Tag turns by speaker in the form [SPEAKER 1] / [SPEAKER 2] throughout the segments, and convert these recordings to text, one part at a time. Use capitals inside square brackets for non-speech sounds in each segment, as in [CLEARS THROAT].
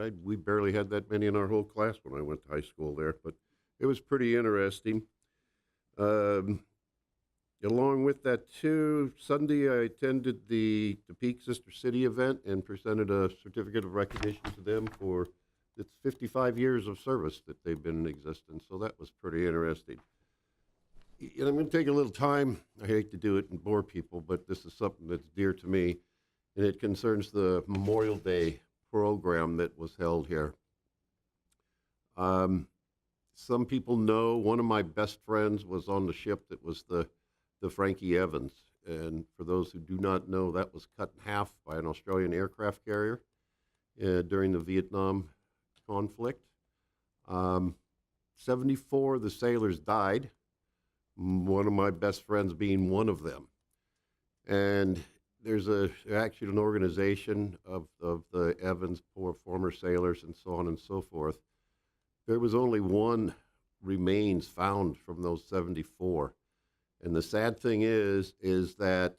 [SPEAKER 1] I, we barely had that many in our whole class when I went to high school there, but it was pretty interesting. Um, along with that, too, Sunday I attended the Peak Sister City event and presented a certificate of recognition to them for it's 55 years of service that they've been in existence, so that was pretty interesting. Y- And I'm going to take a little time. I hate to do it and bore people, but this is something that's dear to me, and it concerns the Memorial Day program that was held here. Um, some people know one of my best friends was on the ship that was the, the Frankie Evans. And for those who do not know, that was cut in half by an Australian aircraft carrier uh, during the Vietnam conflict. Um, 74 of the sailors died, m- one of my best friends being one of them. And there's a, actually an organization of, of the Evans poor former sailors and so on and so forth. There was only one remains found from those 74. And the sad thing is, is that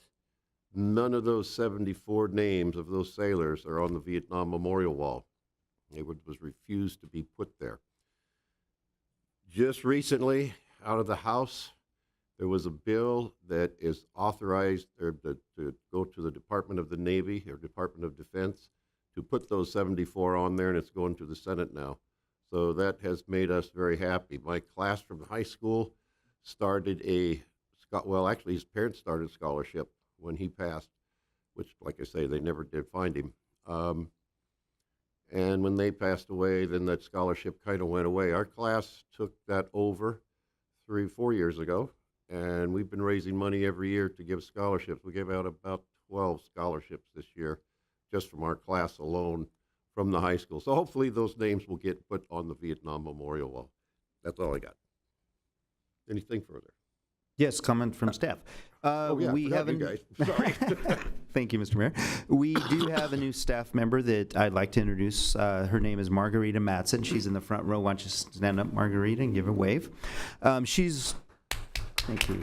[SPEAKER 1] none of those 74 names of those sailors are on the Vietnam Memorial Wall. It would- was refused to be put there. Just recently, out of the House, there was a bill that is authorized or to, to go to the Department of the Navy or Department of Defense to put those 74 on there, and it's going to the Senate now. So that has made us very happy. My class from high school started a, scho- well, actually, his parents started scholarship when he passed, which, like I say, they never did find him. Um, and when they passed away, then that scholarship kind of went away. Our class took that over three, four years ago, and we've been raising money every year to give scholarships. We gave out about 12 scholarships this year just from our class alone from the high school. So hopefully those names will get put on the Vietnam Memorial Wall. That's all I got. Anything further?
[SPEAKER 2] Yes, comment from staff. Uh,
[SPEAKER 1] oh, yeah, I
[SPEAKER 2] we
[SPEAKER 1] forgot you
[SPEAKER 2] haven't. [LAUGHS]
[SPEAKER 1] guys. Sorry. [LAUGHS]
[SPEAKER 2] Thank you, Mr. Mayor. We do have a new staff member that I'd like to introduce. Uh, her name is Margarita Matson. She's in the front row. Why don't you stand up, Margarita, and give a wave? Um, she's. Thank you.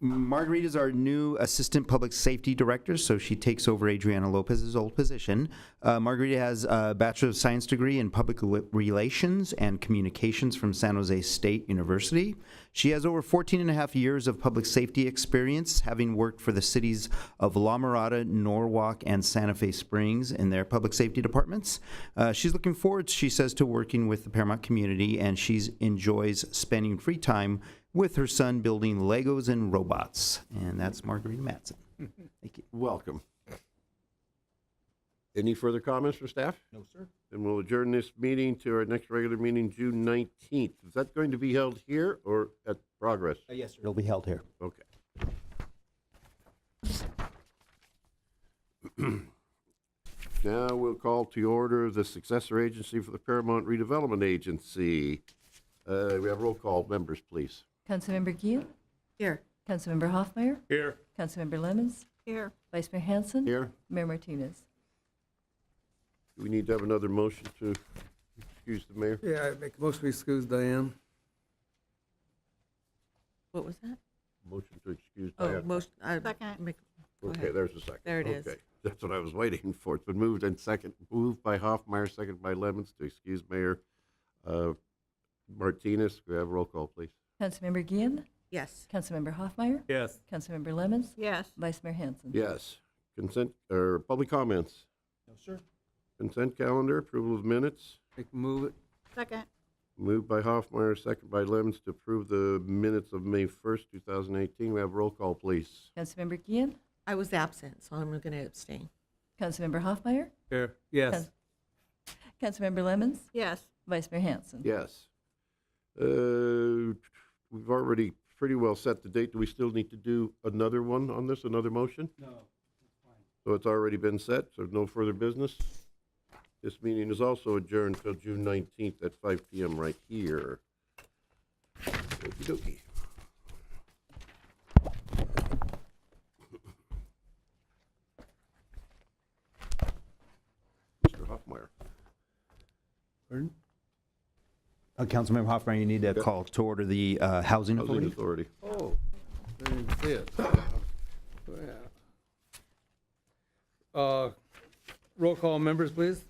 [SPEAKER 2] Marguerite is our new Assistant Public Safety Director, so she takes over Adriana Lopez's old position. Uh, Margarita has a Bachelor of Science degree in Public Rel- Relations and Communications from San Jose State University. She has over 14 and a half years of public safety experience, having worked for the cities of La Mirada, Norwalk, and Santa Fe Springs in their public safety departments. Uh, she's looking forward, she says, to working with the Paramount community, and she enjoys spending free time with her son building Legos and robots. And that's Margarita Matson. Thank you.
[SPEAKER 1] Welcome. Any further comments from staff? No, sir. Then we'll adjourn this meeting to our next regular meeting, June 19th. Is that going to be held here or at Progress?
[SPEAKER 2] yes, sir. It'll be held here.
[SPEAKER 1] Okay. [CLEARS THROAT] Now we'll call to order the successor agency for the Paramount Redevelopment Agency. Uh, We have roll call members, please.
[SPEAKER 3] Councilmember Gill,
[SPEAKER 4] Here.
[SPEAKER 3] Councilmember Hoffmeyer,
[SPEAKER 1] Here.
[SPEAKER 3] Councilmember Lemmons,
[SPEAKER 4] Here.
[SPEAKER 3] Vice Mayor Hanson.
[SPEAKER 1] Here.
[SPEAKER 3] Mayor Martinez.
[SPEAKER 1] Do we need to have another motion to excuse the mayor?
[SPEAKER 5] Yeah, I make a motion to excuse Diane.
[SPEAKER 4] What was that?
[SPEAKER 1] Motion to excuse
[SPEAKER 4] Oh,
[SPEAKER 1] Diane.
[SPEAKER 4] motion, I make, go
[SPEAKER 1] Okay,
[SPEAKER 4] ahead.
[SPEAKER 1] there's a second.
[SPEAKER 4] There it is.
[SPEAKER 1] Okay, That's what I was waiting [LAUGHS] for. It's been moved and second, moved by Hoffmeyer, second by Lemmons to excuse Mayor uh, Martinez. We have roll call, please.
[SPEAKER 3] Councilmember Gill,
[SPEAKER 4] Yes.
[SPEAKER 3] Councilmember Hoffmeyer,
[SPEAKER 5] Yes.
[SPEAKER 3] Councilmember Lemmons,
[SPEAKER 4] Yes.
[SPEAKER 3] Vice Mayor Hanson.
[SPEAKER 1] Yes. Consent, or public comments? No, sir. Consent calendar, approval of minutes,
[SPEAKER 5] Make move it.
[SPEAKER 4] Second.
[SPEAKER 1] moved by Hoffmeyer, second by Lemmons to approve the minutes of May 1st, 2018. We have roll call, please.
[SPEAKER 3] Councilmember Gill,
[SPEAKER 4] I was absent, so I'm going to abstain.
[SPEAKER 3] Councilmember Hoffmeyer,
[SPEAKER 5] Here. Yes.
[SPEAKER 3] Councilmember Lemmons,
[SPEAKER 4] Yes.
[SPEAKER 3] Vice Mayor Hanson.
[SPEAKER 1] Yes. Uh, We've already pretty well set the date. Do we still need to do another one on this, another motion? No, So it's already been set, so no further business. This meeting is also adjourned till June 19th at 5 PM right here. Okey-dokey. Mr. Hoffmeyer.
[SPEAKER 5] Pardon?
[SPEAKER 2] Uh, Councilmember Hoffman, you need to call to order the uh, housing
[SPEAKER 1] Housing
[SPEAKER 2] authority.
[SPEAKER 1] Authority.
[SPEAKER 5] Oh, I didn't see it. Yeah. Uh, Roll call members, please.